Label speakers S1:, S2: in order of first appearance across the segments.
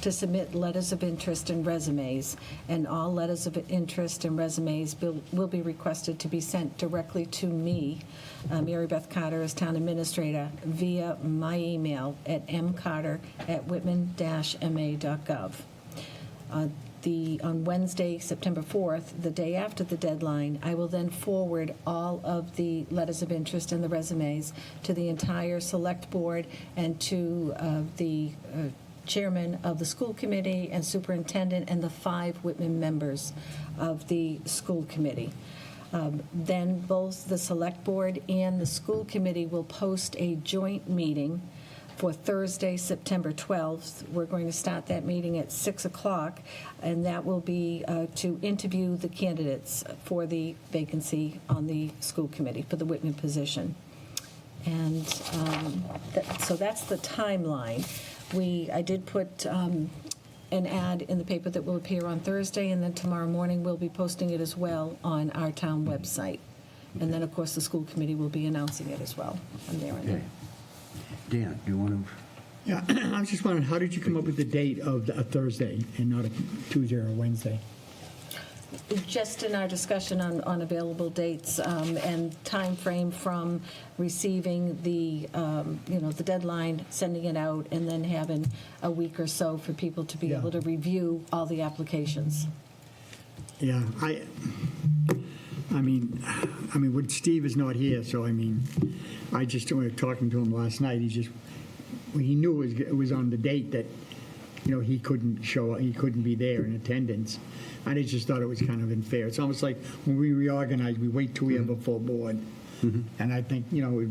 S1: to submit letters of interest and resumes, and all letters of interest and resumes will will be requested to be sent directly to me, uh, Mary Beth Carter, as town administrator, via my email at mcarter@whitman-ma.gov. On uh, the, on Wednesday, September 4th, the day after the deadline, I will then forward all of the letters of interest and the resumes to the entire Select Board and to uh, the uh, Chairman of the School Committee and Superintendent and the five Whitman members of the School Committee. Um, Then both the Select Board and the School Committee will post a joint meeting for Thursday, September 12th. We're going to start that meeting at 6 o'clock, and that will be uh, to interview the candidates for the vacancy on the school committee, for the Whitman position. And um, that- so that's the timeline. We, I did put um, an ad in the paper that will appear on Thursday, and then tomorrow morning, we'll be posting it as well on our town website. And then, of course, the school committee will be announcing it as well on their end.
S2: Okay. Dan, you want to?
S3: Yeah, I was just wondering, how did you come up with the date of a Thursday and not a Tuesday or a Wednesday?
S1: Just in our discussion on, on available dates um, and time frame from receiving the, um, you know, the deadline, sending it out, and then having a week or so for people to be
S3: Yeah.
S1: able to review all the applications.
S3: Yeah, I, I mean, I mean, when Steve is not here, so I mean, I just, when we were talking to him last night, he just, he knew it was, it was on the date that, you know, he couldn't show, he couldn't be there in attendance. I just thought it was kind of unfair. It's almost like when we reorganize, we wait till we have a full board. And I think, you know, it-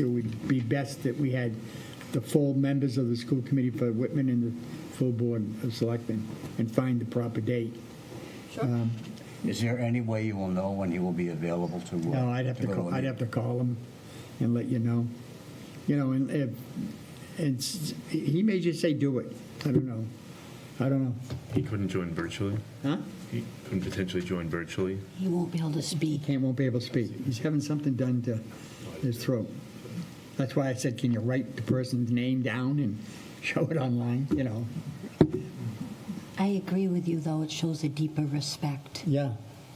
S3: it would be best that we had the full members of the school committee for Whitman and the full board of selectmen and find the proper date.
S1: Sure.
S2: Is there any way you will know when you will be available to? uh,
S3: No, I'd have to
S2: go
S3: call,
S2: a
S3: I'd have to call him and let you know. You know, and, if- and s- he may just say, do it. I don't know. I don't know.
S4: He couldn't join virtually.
S3: Huh?
S4: He couldn't potentially join virtually.
S5: He won't be able to speak.
S3: Can't, won't be able to speak. He's having something done to his throat. That's why I said, can you write the person's name down and show it online, you know?
S5: I agree with you, though, it shows a deeper respect.
S3: Yeah.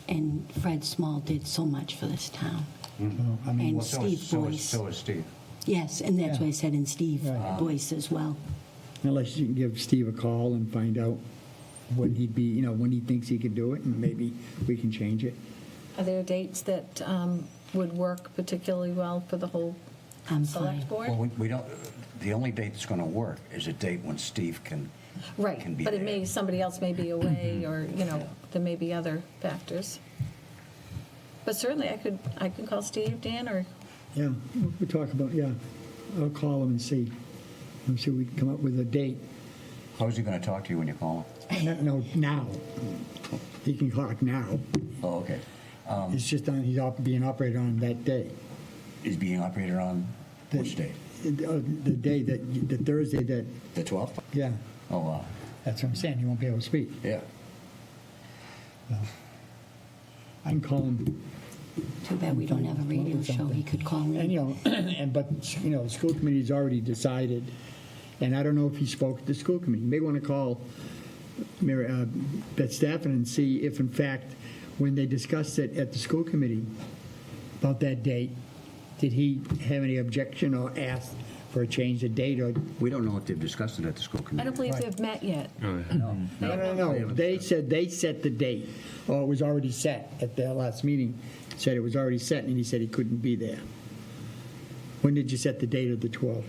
S5: And Fred Small did so much for this town.
S3: Well, I mean,
S5: And
S2: Well, so is-
S5: Steve
S2: so is-
S5: Boyce.
S2: So is Steve.
S5: Yes, and that's why I said in Steve
S3: Right.
S5: Boyce as well.
S3: Unless you can give Steve a call and find out when he'd be, you know, when he thinks he could do it, and maybe we can change it.
S1: Are there dates that um, would work particularly well for the whole
S5: I'm
S1: select
S5: fine.
S2: Well,
S1: board?
S2: we- we don't, the only date that's going to work is a date when Steve can. can
S1: Right,
S2: be
S1: but it
S2: there.
S1: may, somebody else may be away, or, you know, there may be other factors. But certainly, I could, I could call Steve, Dan, or
S3: Yeah, we'll talk about, yeah, I'll call him and see, and see if we can come up with a date.
S2: How's he going to talk to you when you call him?
S3: No, No, now. He can talk now.
S2: Oh, okay.
S3: It's just on, he's op- being operated on that day.
S2: Is being operated on
S3: The-
S2: which date?
S3: The uh, the day that, the Thursday that,
S2: The 12th?
S3: yeah,
S2: Oh, wow.
S3: that's what I'm saying, he won't be able to speak.
S2: Yeah.
S3: I can call him,
S5: Too bad we don't have a radio show he could call
S3: and,
S5: in.
S3: you know, and, but, you know, the school committee's already decided, and I don't know if he spoke to the school committee. You may want to call Mary, uh, Beth Staffen and see if, in fact, when they discussed it at the school committee about that date, did he have any objection or ask for a change of date or?
S2: We don't know if they've discussed it at the school committee.
S1: I don't believe they've met yet.
S3: No, no, no, they said they set the date, or it was already set at their last meeting, said it was already set, and he said he couldn't be there. When did you set the date of the 12th?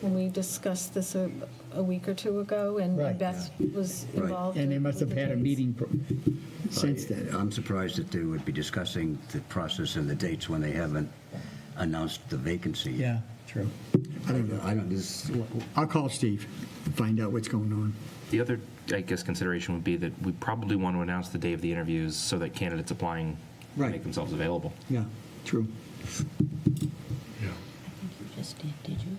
S1: When we discussed this a, a week or two ago, and
S3: Right.
S1: Beth was
S2: Right.
S1: involved.
S3: And they
S1: in-
S3: must have
S1: with the
S3: had a
S1: dates.
S3: meeting pro- since then.
S2: I'm surprised that they would be discussing the process and the dates when they haven't announced the vacancy.
S3: Yeah, true.
S2: I don't know. I don't, this,
S3: I'll call Steve, find out what's going on.
S6: The other, I guess, consideration would be that we probably want to announce the day of the interviews so that candidates applying
S3: Right.
S6: make themselves available.
S3: Yeah, true.
S5: I think you just did, did you?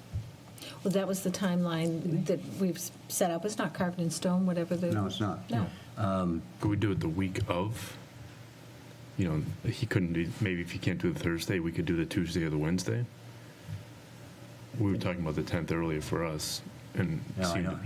S1: Well, that was the timeline that we've s- set up. It's not carved in stone, whatever the.
S2: no, it's not.
S1: No.
S4: Could we do it the week of? You know, he couldn't do, maybe if he can't do the Thursday, we could do the Tuesday or the Wednesday. We were talking about the 10th earlier for us and
S2: No, I
S4: seemed-
S2: know.